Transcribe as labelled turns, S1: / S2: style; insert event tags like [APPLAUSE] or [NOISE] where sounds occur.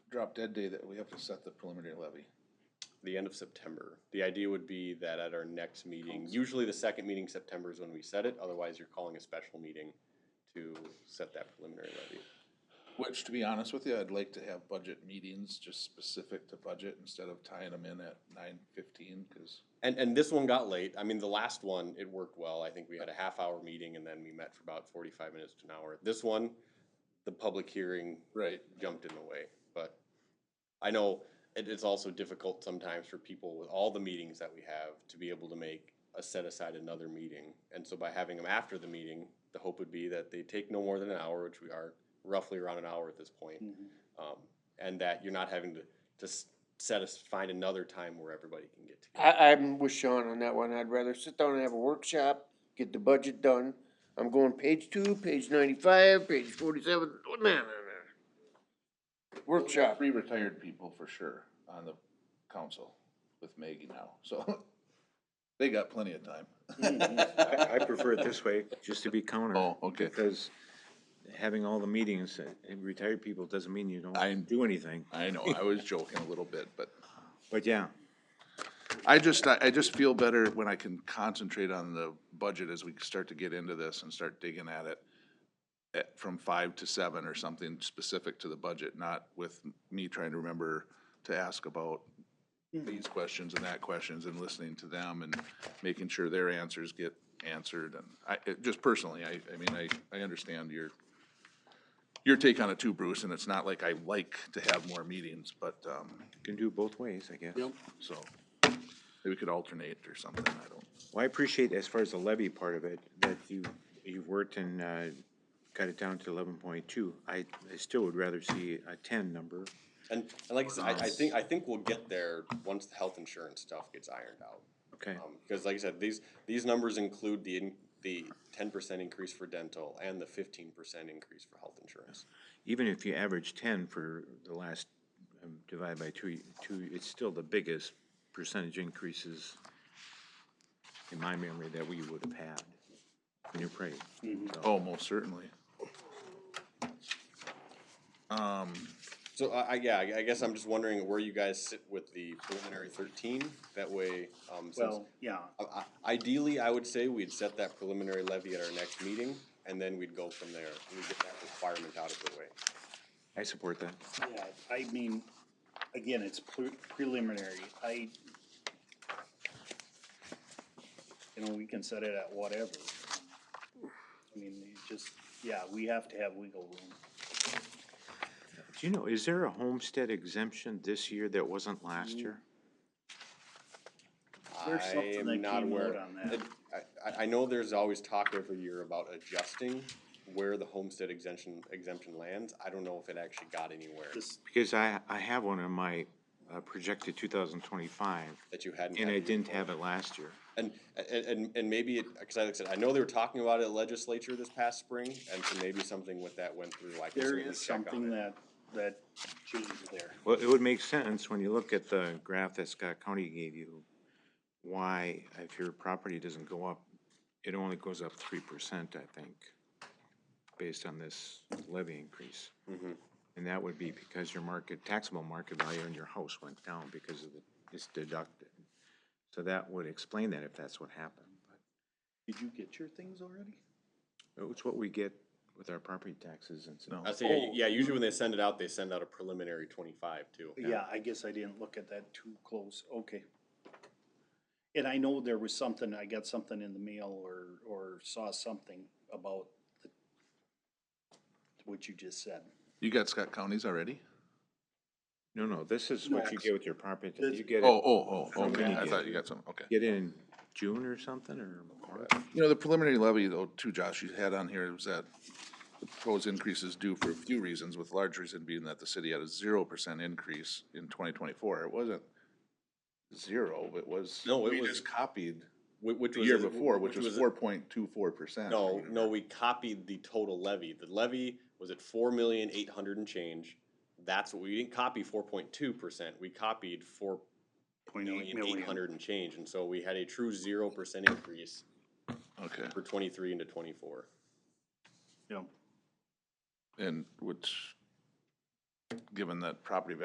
S1: drop dead day that we have to set the preliminary levy?
S2: the end of September. The idea would be that at our next meeting, usually the second meeting in September is when we set it, otherwise you're calling a special meeting to set that preliminary levy.
S1: Which, to be honest with you, I'd like to have budget meetings just specific to budget instead of tying them in at nine fifteen, cause
S2: And, and this one got late. I mean, the last one, it worked well. I think we had a half hour meeting and then we met for about forty-five minutes to an hour. This one, the public hearing
S1: Right.
S2: jumped in the way, but I know it is also difficult sometimes for people with all the meetings that we have to be able to make a set aside another meeting. And so by having them after the meeting, the hope would be that they take no more than an hour, which we are roughly around an hour at this point. Um, and that you're not having to, to s- set us, find another time where everybody can get together.
S3: I, I'm with Sean on that one. I'd rather sit down and have a workshop, get the budget done. I'm going page two, page ninety-five, page forty-seven, nah, nah, nah. Workshop.
S1: Three retired people for sure on the council with Maggie now, so [LAUGHS] they got plenty of time.
S4: I I prefer it this way, just to be counter,
S1: Oh, okay.
S4: because having all the meetings, uh, and retired people doesn't mean you
S1: I'm-
S4: don't do anything.
S1: I know, I was joking a little bit, but
S4: But yeah,
S1: I just, I, I just feel better when I can concentrate on the budget as we start to get into this and start digging at it. At, from five to seven or something specific to the budget, not with me trying to remember to ask about these questions and that questions and listening to them and making sure their answers get answered and I, it, just personally, I, I mean, I, I understand your, your take on it too, Bruce, and it's not like I like to have more meetings, but, um,
S4: you can do it both ways, I guess.
S1: so maybe we could alternate or something, I don't.
S4: Well, I appreciate, as far as the levy part of it, that you, you've worked and, uh, cut it down to eleven point two. I, I still would rather see a ten number.
S2: And, and like I said, I, I think, I think we'll get there once the health insurance stuff gets ironed out.
S4: Okay,
S2: Um, because like I said, these, these numbers include the, in- the ten percent increase for dental and the fifteen percent increase for health insurance.
S4: even if you average ten for the last, um, divide by two, two, it's still the biggest percentage increases in my memory that we would have had in your pay.
S1: Oh, most certainly. Um,
S2: So I, I, yeah, I I guess I'm just wondering where you guys sit with the preliminary thirteen, that way, um, since.
S5: Well, yeah,
S2: I- I- Ideally, I would say we'd set that preliminary levy at our next meeting, and then we'd go from there, and we'd get that requirement out of the way.
S4: I support that.
S5: yeah, I mean, again, it's pre- preliminary, I. You know, we can set it at whatever. I mean, it just, yeah, we have to have wiggle room.
S4: Do you know, is there a homestead exemption this year that wasn't last year?
S5: There's
S2: I
S5: something
S2: am
S5: that
S2: not
S5: came
S2: aware-
S5: out on that.
S2: it- I, I- I know there's always talk every year about adjusting where the homestead exemption, exemption lands. I don't know if it actually got anywhere
S5: This,
S4: Because I, I have one in my uh, projected two thousand twenty-five,
S2: that you hadn't.
S4: and
S2: had
S4: I
S2: it
S4: didn't
S2: before.
S4: have it last year.
S2: And, and, and, and maybe it, cause like I said, I know they were talking about it at legislature this past spring, and so maybe something with that went through, I can
S5: there
S2: certainly
S5: is
S2: check on
S5: something
S2: it.
S5: that, that changed there.
S4: Well, it would make sense when you look at the graph that Scott County gave you, why if your property doesn't go up, it only goes up three percent, I think, based on this levy increase. And that would be because your market, taxable market value on your house went down because of the, it's deducted. So that would explain that if that's what happened.
S5: Did you get your things already?
S4: But It's what we get with our property taxes and so.
S2: I say, yeah, usually when they send it out, they send out a preliminary twenty-five too.
S5: Yeah, I guess I didn't look at that too close, okay. And I know there was something, I got something in the mail or, or saw something about the- what you just said.
S1: you got Scott counties already?
S4: No, no, this is what you
S5: No.
S4: get with your property.
S5: This-
S4: You get
S1: Oh,
S4: it,
S1: oh, oh,
S4: From
S1: okay, I
S4: Indiana.
S1: thought you got some, okay.
S4: get it in June or something or March?
S1: You know, the preliminary levy though, too, Josh, you had on here was that the proposed increase is due for a few reasons, with large reason being that the city had a zero percent increase in twenty twenty-four. It wasn't zero, it was.
S2: No, it
S1: we
S2: was-
S1: just Copied
S2: Whi- Which
S1: the
S2: was.
S1: year
S2: a-
S1: before, which was
S2: a-
S1: four point two four percent.
S2: No, no, we copied the total levy. The levy was at four million eight hundred and change. That's what, we didn't copy four point two percent, we copied four
S5: Point
S2: million eight hundred and change, and so we had a true zero percent increase
S1: Okay,
S2: for twenty-three into twenty-four.
S5: Yeah.
S1: and which, given that property values